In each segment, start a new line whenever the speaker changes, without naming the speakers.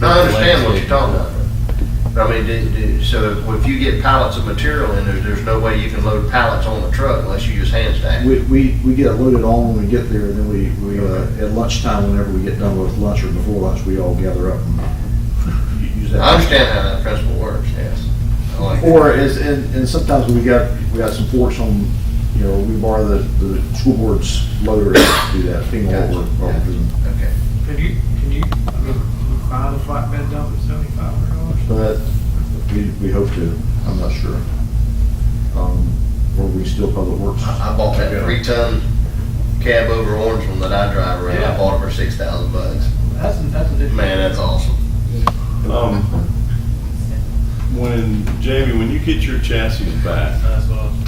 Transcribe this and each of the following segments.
No, I understand what you're talking about. But I mean, do, do, so if you get pallets of material in there, there's no way you can load pallets on the truck unless you use hand stack.
We, we, we get loaded on when we get there, and then we, we, uh, at lunchtime, whenever we get done with lunch or before lunch, we all gather up and use that.
I understand how that principle works, yes. I like that.
Or is, and, and sometimes we got, we got some forks on, you know, we borrow the, the school board's loader to do that, FEMA or, or
Okay.
Can you, can you, I mean, can you buy the flatbed dump at seventy-five hundred dollars?
But we, we hope to, I'm not sure. Um, or we still public works.
I, I bought that three-ton cab over Orangeland that I drive around. I
Yeah.
bought it for six thousand bucks.
That's, that's a different.
Man, that's awesome.
Um, when, Jamie, when you get your chassis back,
That's what I was-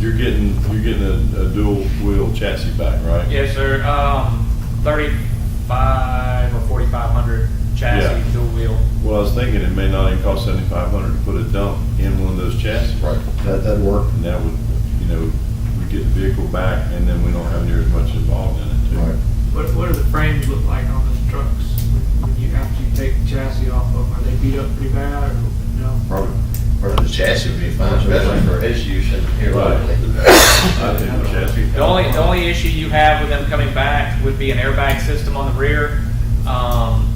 you're getting, you're getting a, a dual wheel chassis back, right?
Yes, sir. Um, thirty-five or forty-five hundred
Yeah.
chassis, dual wheel.
Well, I was thinking it may not even cost seventy-five hundred to put a dump in one of those chassis. Right.
That, that'd work.
And that would, you know, we get the vehicle back and then we don't have near as much involved in it too.
Right.
What, what do the frames look like on those trucks when you, after you take the chassis off of them? Are they beat up pretty bad or no?
Probably.
Or the chassis would be fine, especially for his use in here
Right.
locally.
I think the chassis.
The only, the only issue you have with them coming back would be an airbag system on the rear, um,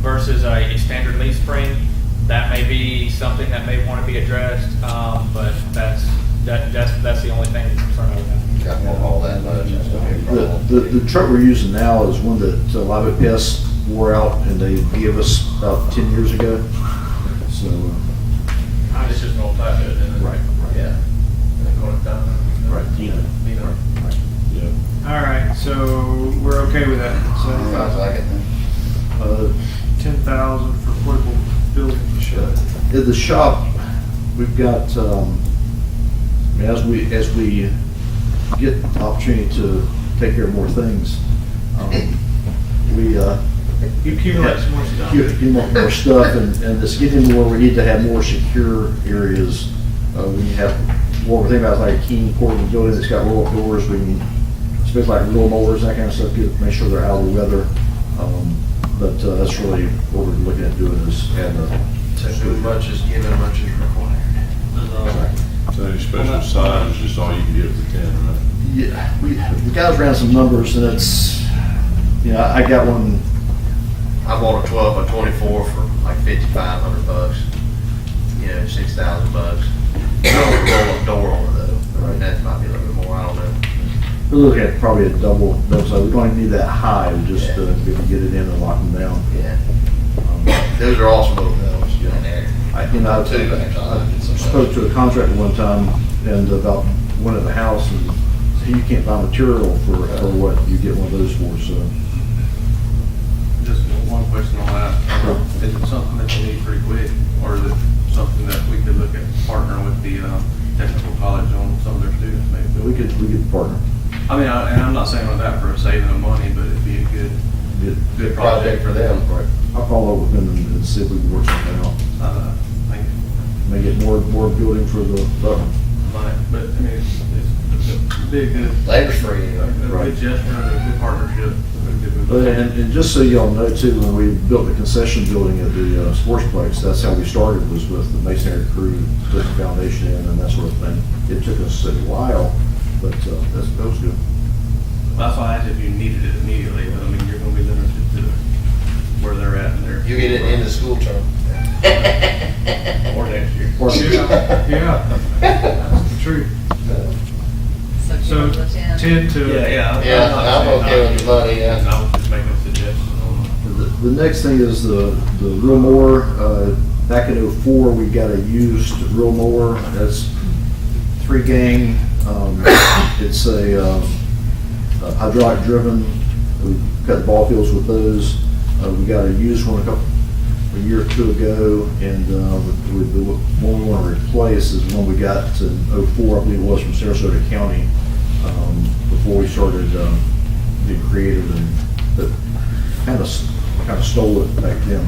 versus a, a standard leaf spring. That may be something that may want to be addressed, um, but that's, that, that's, that's the only thing that's concerned with that.
Got more haul that much, that's gonna be a
The,
problem.
the, the truck we're using now is one that uh, Lobby Pest wore out and they gave us about ten years ago. So, uh,
I
It's
just-
just an old type of it, isn't it?
Right, right.
Yeah. And they call it down.
Right, Dino.
Dino.
Yeah.
All right, so we're okay with that.
Sounds
So
like it.
uh,
ten thousand for portable building.
at the shop, we've got, um, as we, as we get the opportunity to take care of more things, um, we, uh,
You accumulate some more stuff.
get get more more stuff and, and just get into where we need to have more secure areas. Uh, we have, what we're thinking about is like a King Corbin building that's got roll-up doors, we can, especially like roll mowers, that kind of stuff, get, make sure they're out of the weather. Um, But, uh, that's really what we're looking at doing is, and,
So too much is given, much is required.
So any special sign is just all you can get for ten, right?
yeah, we, the guys ran some numbers and it's, you know, I got one,
I bought a twelve by twenty-four for like fifty-five hundred bucks, you know, six thousand bucks. I don't roll a door on it though, I mean, that might be a little bit more, I don't know.
we're looking at probably a double, double, so we don't even need that high, we just, uh, we can get it in and lock them down.
Yeah,
Um,
those are awesome little bills, you know, there.
I, you know, I
Two bags, I like it sometimes.
spoke to a contractor one time and about one at the house and said, you can't buy material for, for what you get one of those for, so.
Just one question on that. Um, Is it something that you need pretty quick, or is it something that we could look at partnering with the um, technical college on some of their students
But we
maybe?
could, we could partner.
I mean, I- and I'm not saying with that for a saving of money, but it'd be a good,
Get-
good project.
for them. Right.
I'll follow up with them and and see if we can work something out.
Uh, Thank you.
May get more, more building for the, the-
But, but, I mean, it's, it's it'd be a good,
Labor's free, you
a
know.
good gesture, a good partnership. a good move.
But, and, and just so y'all know too, when we built the concession building at the uh, sportsplex, that's how we started, was with the masonry crew, put the foundation in and that sort of thing. It took us a while, but, uh, that's, that was good.
That's why I asked if you needed it immediately, but I mean, you're gonna be limited to where they're at and their.
You get it in the school term.
Or next year.
Or-
Yeah, yeah, that's true. So
So ten.
ten to.
Yeah, yeah.
Yeah, I'm okay with the money, yeah.
I was just making a suggestion on,
The the next thing is the, the real mower. Uh, Back in '04, we got a used real mower. That's three gang. Um, It's a um, a hydraulic driven. We cut ball fields with those. Uh, We got a used one a couple, a year or two ago. And uh, with- with the one we want to replace is one we got in '04, I believe it was from Sarasota County, um, before we started um, being creative and, but kind of, kind of stole it back then.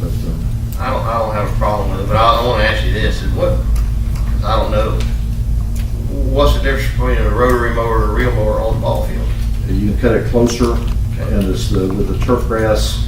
But, um,
I don't, I don't have a problem with it, but I, I wanna ask you this, is what, 'cause I don't know. What's the difference between a rotary mower and a reel mower on the ball field?
you can cut it closer, and it's the, with the turf grass,